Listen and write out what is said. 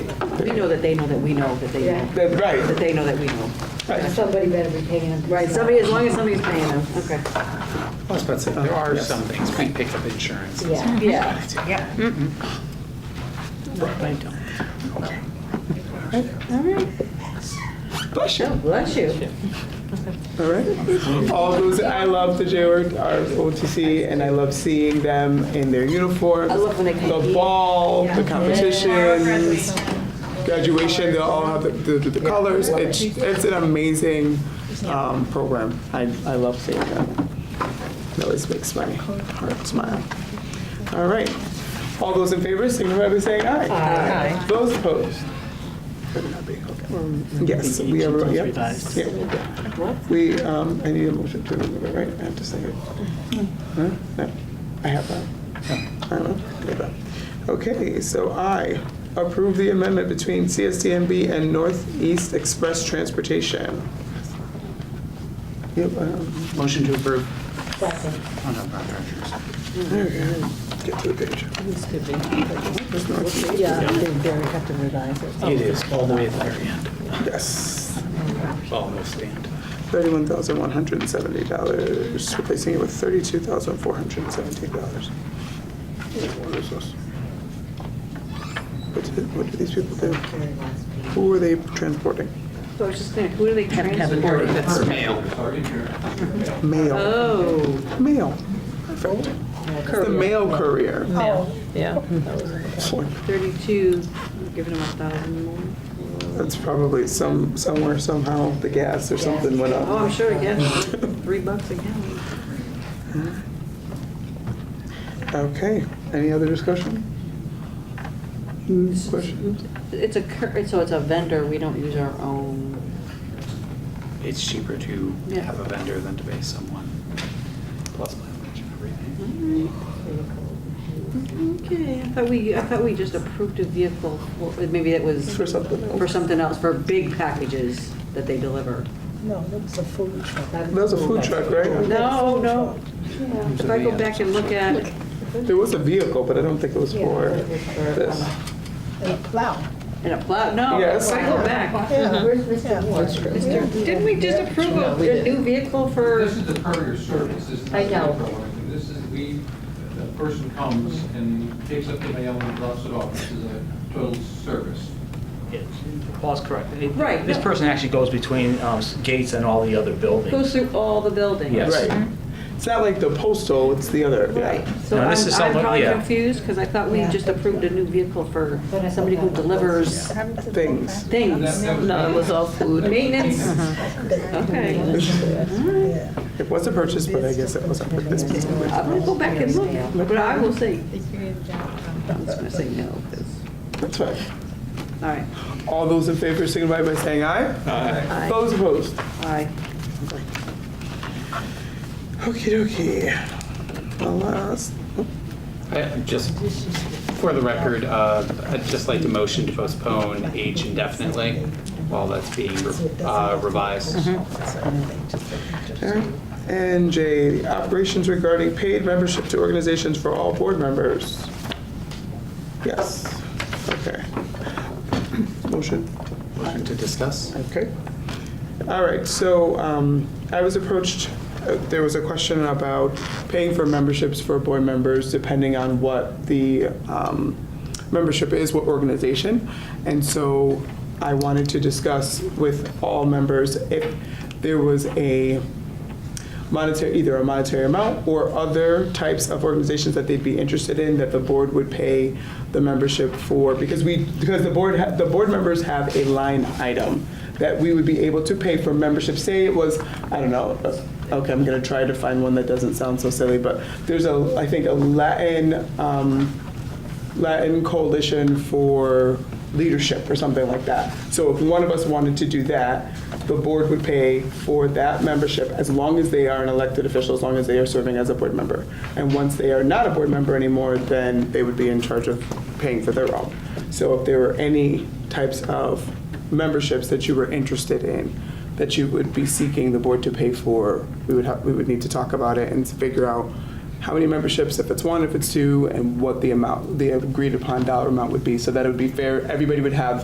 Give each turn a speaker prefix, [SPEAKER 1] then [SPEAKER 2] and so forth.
[SPEAKER 1] We know that they know that we know that they know.
[SPEAKER 2] Yeah.
[SPEAKER 3] That- right.
[SPEAKER 1] That they know that we know.
[SPEAKER 3] Right.
[SPEAKER 2] Somebody better be paying them.
[SPEAKER 1] Right, somebody, as long as somebody's paying them, okay.
[SPEAKER 4] I was about to say,
[SPEAKER 3] There are
[SPEAKER 4] yes.
[SPEAKER 3] some things, we pick up insurance.
[SPEAKER 2] Yeah.
[SPEAKER 1] Yeah.
[SPEAKER 3] Right. Okay.
[SPEAKER 4] Bless you.
[SPEAKER 1] Bless you.
[SPEAKER 4] All right. All those, I love the J word, our OTC, and I love seeing them in their uniforms.
[SPEAKER 1] I love when they come
[SPEAKER 4] The
[SPEAKER 1] eat.
[SPEAKER 4] ball, the competitions, graduation, they'll all have the, the, the colors. It's, it's an amazing, um, program. I, I love seeing them. It always makes my heart smile. All right. All those in favor, signify by saying aye. Aye. Those opposed? Yes, we are, yep. Yeah. We, um, I need a motion to remove it, right? I have to say it. Huh? No, I have that. I don't know. Give that. Okay, so I approve the amendment between CSTMB and Northeast Express Transportation. Yep, um,
[SPEAKER 3] Motion to approve.
[SPEAKER 2] Second.
[SPEAKER 3] Oh, no, Brown Chargers.
[SPEAKER 4] get to the page.
[SPEAKER 1] Yeah, they have to revise it.
[SPEAKER 3] It is, all the way at the very end.
[SPEAKER 4] Yes,
[SPEAKER 3] Almost the end.
[SPEAKER 4] thirty-one thousand one hundred and seventy dollars, replacing it with thirty-two thousand four hundred and seventeen dollars. What is this? What do- What do these people do? Who are they transporting?
[SPEAKER 1] So I was just thinking, who do they
[SPEAKER 3] Or
[SPEAKER 1] transport?
[SPEAKER 3] that's mail.
[SPEAKER 4] Mail.
[SPEAKER 1] Oh,
[SPEAKER 4] Mail. Perfect. It's the mail courier. Oh, Boy,
[SPEAKER 1] 32, giving them a thousand more.
[SPEAKER 4] That's probably some, somewhere, somehow, the gas or something went
[SPEAKER 1] Oh,
[SPEAKER 4] up.
[SPEAKER 1] I'm sure again, three bucks again.
[SPEAKER 4] Okay, any other discussion? Questions?
[SPEAKER 1] It's a, cur- so it's a vendor, we don't use our own.
[SPEAKER 3] It's cheaper to
[SPEAKER 1] Yeah.
[SPEAKER 3] have a vendor than to pay someone. Plus mileage and everything.
[SPEAKER 1] Okay, I thought we, I thought we just approved a vehicle, for- maybe it was.
[SPEAKER 4] For something else.
[SPEAKER 1] For something else, for big packages that they deliver.
[SPEAKER 5] No, that was a food truck.
[SPEAKER 4] That was a food truck, right?
[SPEAKER 1] No, no.
[SPEAKER 3] Who's
[SPEAKER 1] If
[SPEAKER 3] the
[SPEAKER 1] I go
[SPEAKER 3] man?
[SPEAKER 1] back and look at,
[SPEAKER 4] There was a vehicle, but I don't think it was for this.
[SPEAKER 5] A plow.
[SPEAKER 1] in a plow, no,
[SPEAKER 4] Yes.
[SPEAKER 1] if I go back.
[SPEAKER 5] Yeah.
[SPEAKER 2] Where's Mr. Moore?
[SPEAKER 1] Didn't we just approve a a new vehicle for?
[SPEAKER 6] This is the courier service, this is
[SPEAKER 2] I
[SPEAKER 6] not
[SPEAKER 2] know.
[SPEAKER 6] the program. This is, we, the person comes and picks up the mail and drops it off. This is a total service.
[SPEAKER 7] Yes, Paul's correct. It-
[SPEAKER 1] Right,
[SPEAKER 7] This
[SPEAKER 1] no.
[SPEAKER 7] person actually goes between um, s- gates and all the other
[SPEAKER 1] Goes
[SPEAKER 7] buildings.
[SPEAKER 1] through all the buildings.
[SPEAKER 7] Yes.
[SPEAKER 4] Right. Mm-hmm. It's not like the postal, it's the other,
[SPEAKER 1] Right,
[SPEAKER 4] yeah.
[SPEAKER 1] so
[SPEAKER 7] Now,
[SPEAKER 1] I'm,
[SPEAKER 7] this is
[SPEAKER 1] I'm
[SPEAKER 7] something-
[SPEAKER 1] probably
[SPEAKER 7] yeah.
[SPEAKER 1] confused, because I thought we
[SPEAKER 2] Yeah.
[SPEAKER 1] just approved a new vehicle for
[SPEAKER 2] But I thought
[SPEAKER 1] somebody who
[SPEAKER 2] that was-
[SPEAKER 1] delivers
[SPEAKER 4] Things.
[SPEAKER 1] things.
[SPEAKER 6] That- that was-
[SPEAKER 1] No, it was all food. Maintenance, okay.
[SPEAKER 4] It was a purchase, but I guess it wasn't for this particular.
[SPEAKER 1] I'm gonna go back and look, but I will say, I'm just gonna say no, 'cause-
[SPEAKER 4] That's fine.
[SPEAKER 1] all right,
[SPEAKER 4] All those in favor signify by saying aye. Aye. Those opposed?
[SPEAKER 1] aye.
[SPEAKER 4] Okey dokey. The last,
[SPEAKER 8] I- Just for the record, uh, I'd just like to motion to postpone H indefinitely while that's being re- uh, revised.
[SPEAKER 4] okay. And J, operations regarding paid membership to organizations for all board members. Yes, okay. Motion,
[SPEAKER 3] Motion to discuss?
[SPEAKER 4] okay. All right, so um, I was approached, uh, there was a question about paying for memberships for board members depending on what the um, membership is, what organization. And so I wanted to discuss with all members if there was a monetary, either a monetary amount or other types of organizations that they'd be interested in that the board would pay the membership for, because we, because the board, ha- the board members have a line item that we would be able to pay for membership. Say it was, I don't know, uh, okay, I'm gonna try to find one that doesn't sound so silly, but there's a, I think, a Latin, um, Latin Coalition for Leadership or something like that. So if one of us wanted to do that, the board would pay for that membership as long as they are an elected official, as long as they are serving as a board member. And once they are not a board member anymore, then they would be in charge of paying for their own. So if there were any types of memberships that you were interested in, that you would be seeking the board to pay for, we would have, we would need to talk about it and figure out how many memberships, if it's one, if it's two, and what the amount, the agreed upon dollar amount would be, so that it would be fair, everybody would have